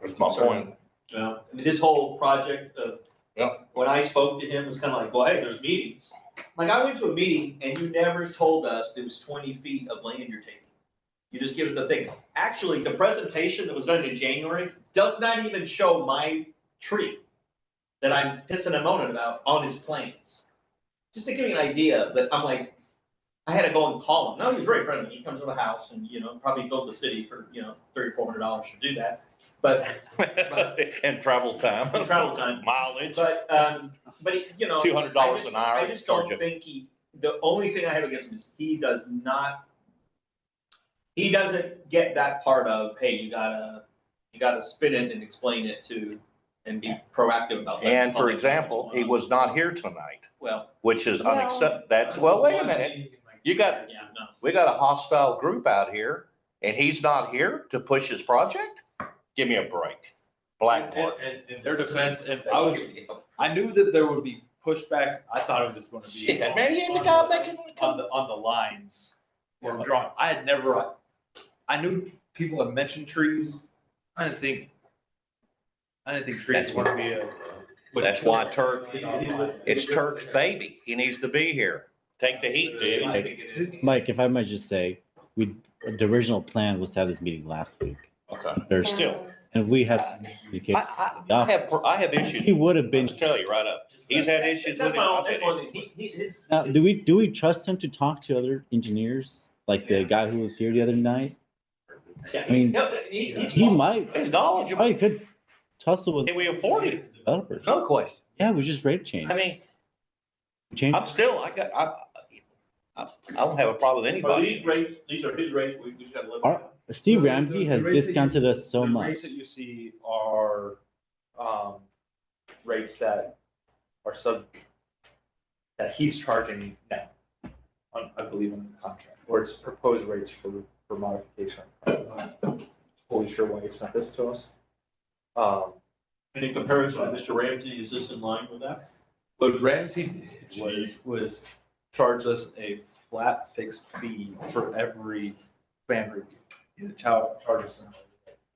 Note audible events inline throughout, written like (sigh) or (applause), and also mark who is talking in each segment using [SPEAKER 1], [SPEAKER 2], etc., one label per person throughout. [SPEAKER 1] That's my point.
[SPEAKER 2] Yeah, I mean, his whole project of.
[SPEAKER 1] Yeah.
[SPEAKER 2] When I spoke to him, it was kind of like, well, hey, there's meetings. Like, I went to a meeting and you never told us it was twenty feet of land you're taking. You just give us the thing. Actually, the presentation that was done in January does not even show my tree that I'm pissing and moaning about on his plans. Just to give you an idea, but I'm like, I had to go and call him. No, he was very friendly. He comes to the house and, you know, probably built the city for, you know, three or four hundred dollars to do that. But
[SPEAKER 1] (laughs) And travel time, (laughs)
[SPEAKER 2] travel time.
[SPEAKER 1] mileage,
[SPEAKER 2] But, um, but, he- you know.
[SPEAKER 1] two hundred dollars
[SPEAKER 2] I just-
[SPEAKER 1] an hour.
[SPEAKER 2] I just don't think he, the only thing I have against him is he does not, he doesn't get that part of, hey, you gotta, you gotta spin it and explain it to, and be proactive about. letting
[SPEAKER 1] And
[SPEAKER 2] the
[SPEAKER 1] for
[SPEAKER 2] public know what's
[SPEAKER 1] example,
[SPEAKER 2] going
[SPEAKER 1] he
[SPEAKER 2] on.
[SPEAKER 1] was not here tonight,
[SPEAKER 2] Well,
[SPEAKER 1] which is
[SPEAKER 3] Well-
[SPEAKER 1] unacceptable. That's, well, wait a minute. You got-
[SPEAKER 2] yeah, no.
[SPEAKER 1] We got a hostile group out here and he's not here to push his project? Give me a break. Blackboard.
[SPEAKER 4] And, and their defense, and I was, I knew that there would be pushback, I thought it was gonna be.
[SPEAKER 1] Shit,
[SPEAKER 4] on-
[SPEAKER 1] man, he ain't the
[SPEAKER 4] on
[SPEAKER 1] guy
[SPEAKER 4] the-
[SPEAKER 1] making.
[SPEAKER 4] On the, on the lines were drawn, I had never, I knew people had mentioned trees, I didn't think, I didn't think trees
[SPEAKER 1] That's
[SPEAKER 4] were gonna be a.
[SPEAKER 1] That's why Turk,
[SPEAKER 4] Turk.
[SPEAKER 1] it's Turk's baby. He needs to be here. Take the heat, dude.
[SPEAKER 5] Mike, if I might just say, we, the original plan was to have this meeting last week,
[SPEAKER 1] Okay.
[SPEAKER 5] Thursday,
[SPEAKER 1] Still.
[SPEAKER 5] and we have. some
[SPEAKER 1] I,
[SPEAKER 5] communications
[SPEAKER 1] I,
[SPEAKER 5] with the
[SPEAKER 1] I have,
[SPEAKER 5] office.
[SPEAKER 1] I have issues.
[SPEAKER 5] He would have
[SPEAKER 1] I'll
[SPEAKER 5] been,
[SPEAKER 1] just tell you right up. He's had issues with
[SPEAKER 2] That's
[SPEAKER 1] him.
[SPEAKER 2] my
[SPEAKER 1] I've
[SPEAKER 2] own,
[SPEAKER 1] had
[SPEAKER 2] that's my
[SPEAKER 1] issues.
[SPEAKER 2] own, he, he, his.
[SPEAKER 5] now, do we, do we trust him to talk to other engineers? Like the guy who was here the other night?
[SPEAKER 2] Yeah,
[SPEAKER 5] I mean,
[SPEAKER 2] no, he, he's.
[SPEAKER 5] He might,
[SPEAKER 1] He's
[SPEAKER 5] he
[SPEAKER 1] knowledgeable.
[SPEAKER 5] probably could tussle with
[SPEAKER 1] Can we afford him?
[SPEAKER 5] developers.
[SPEAKER 1] No question.
[SPEAKER 5] Yeah, we just rate change.
[SPEAKER 1] I mean,
[SPEAKER 5] Change,
[SPEAKER 1] I'm still, I got, I, I, I don't have a problem with
[SPEAKER 2] But these
[SPEAKER 1] anybody.
[SPEAKER 2] rates, these are his rates, we, we just gotta live. with
[SPEAKER 5] Our-
[SPEAKER 2] it.
[SPEAKER 5] Steve Ramsey has
[SPEAKER 4] The rates that you-
[SPEAKER 5] discounted us so
[SPEAKER 4] The
[SPEAKER 5] much.
[SPEAKER 4] rates that you see are, um, rates that are sub, that he's charging now, on, I believe, on the contract, or it's proposed rates for, for modification. I'm Totally sure why he sent this to us. Um,
[SPEAKER 2] And in comparison, Mr. Ramsey, is this in line with that?
[SPEAKER 4] what Ramsey did was, was charge us a flat fixed fee for every fan review. He child charges us.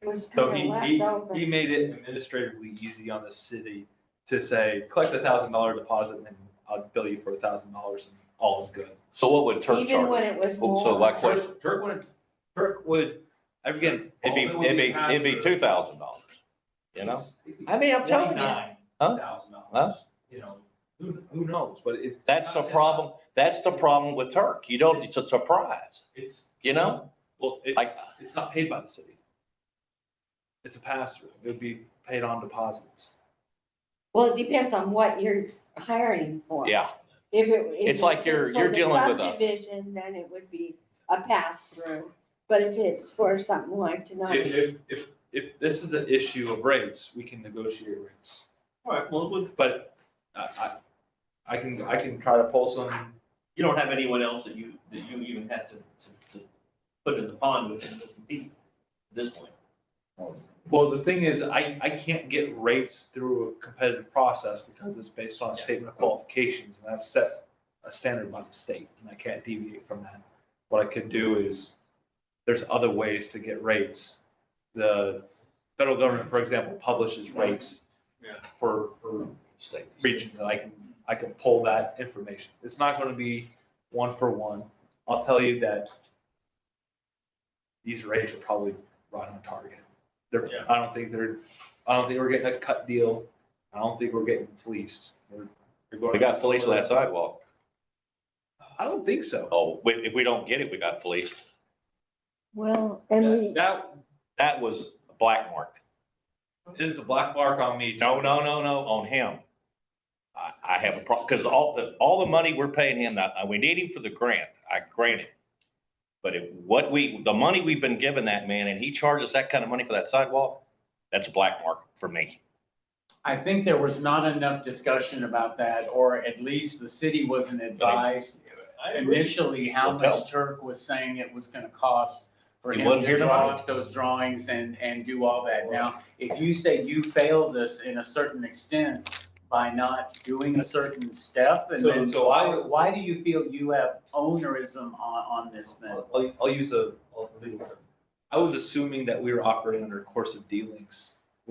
[SPEAKER 3] It was
[SPEAKER 4] So
[SPEAKER 3] kind
[SPEAKER 4] he,
[SPEAKER 3] of
[SPEAKER 4] he,
[SPEAKER 3] left over.
[SPEAKER 4] he made it administratively easy on the city to say, collect a thousand dollar deposit and I'll bill you for a thousand dollars and all is good.
[SPEAKER 1] So what would Turk
[SPEAKER 3] Even when
[SPEAKER 1] charge?
[SPEAKER 3] it was
[SPEAKER 1] Oh, so
[SPEAKER 3] more.
[SPEAKER 1] like-
[SPEAKER 4] Turk Turk would, Turk would, again.
[SPEAKER 1] It'd be, it'd be, it'd be two thousand dollars, you know? I mean, I'm telling you,
[SPEAKER 4] Twenty-nine
[SPEAKER 1] Huh?
[SPEAKER 4] thousand
[SPEAKER 1] Huh?
[SPEAKER 4] dollars, you know, who, who knows, but it's.
[SPEAKER 1] that's the problem, that's the problem with Turk. You don't, it's a surprise,
[SPEAKER 4] It's,
[SPEAKER 1] you know?
[SPEAKER 4] well, it,
[SPEAKER 1] Like,
[SPEAKER 4] it's not paid by the city. It's a pass through. It would be paid on deposits.
[SPEAKER 3] Well, it depends on what you're hiring for.
[SPEAKER 1] yeah,
[SPEAKER 3] If it. if
[SPEAKER 1] It's like you're-
[SPEAKER 3] it's for
[SPEAKER 1] you're
[SPEAKER 3] the
[SPEAKER 1] dealing with a-
[SPEAKER 3] Subdivision, then it would be a pass through, but if it's for something like
[SPEAKER 4] If,
[SPEAKER 3] tonight,
[SPEAKER 4] if, if, if this is an issue of rates, we can negotiate rates.
[SPEAKER 2] All right, well, we-
[SPEAKER 4] But I, I, I can, I can try to pull some,
[SPEAKER 2] you don't have anyone else that you, that you even had to, to, to put in the pond with and compete at this point.
[SPEAKER 4] well, the thing is, I, I can't get rates through a competitive process because it's based on a statement of qualifications and that's set a standard by the state and I can't deviate from that. What I could do is, there's other ways to get rates. The federal government, for example, publishes rates
[SPEAKER 2] Yeah.
[SPEAKER 4] for, for regions, and I can, I can pull that information. It's not gonna be one for one. I'll tell you that these rates are probably right on target. They're,
[SPEAKER 2] Yeah.
[SPEAKER 4] I don't think they're, I don't think we're getting a cut deal. I don't think we're getting fleeced. We're- we're going-
[SPEAKER 1] we got police on that sidewalk.
[SPEAKER 4] I don't think so.
[SPEAKER 1] Oh, if, if we don't get it, we got police.
[SPEAKER 3] well, and we.
[SPEAKER 4] That
[SPEAKER 1] That was a black mark.
[SPEAKER 4] is a black mark on me.
[SPEAKER 1] No, no, no, no, on him. I, I have a problem, because all the, all the money we're paying him, now, we need him for the grant, I grant it. But if, what we, the money we've been giving that man, and he charges that kind of money for that sidewalk, that's a black mark for me.
[SPEAKER 6] I think there was not enough discussion about that, or at least the city wasn't advised initially how
[SPEAKER 1] Well, tell
[SPEAKER 6] much Turk was saying it was gonna cost for
[SPEAKER 1] He
[SPEAKER 6] him
[SPEAKER 1] wasn't here
[SPEAKER 6] to draw
[SPEAKER 1] tonight.
[SPEAKER 6] up those drawings and, and do all that. Now, if you say you failed us in a certain extent by not doing a certain step, and
[SPEAKER 4] So-
[SPEAKER 6] then
[SPEAKER 4] so
[SPEAKER 6] why,
[SPEAKER 4] I-
[SPEAKER 6] why do you feel you have ownerism on, on this then?
[SPEAKER 4] I'll, I'll use a a legal term. I was assuming that we were operating under course of dealings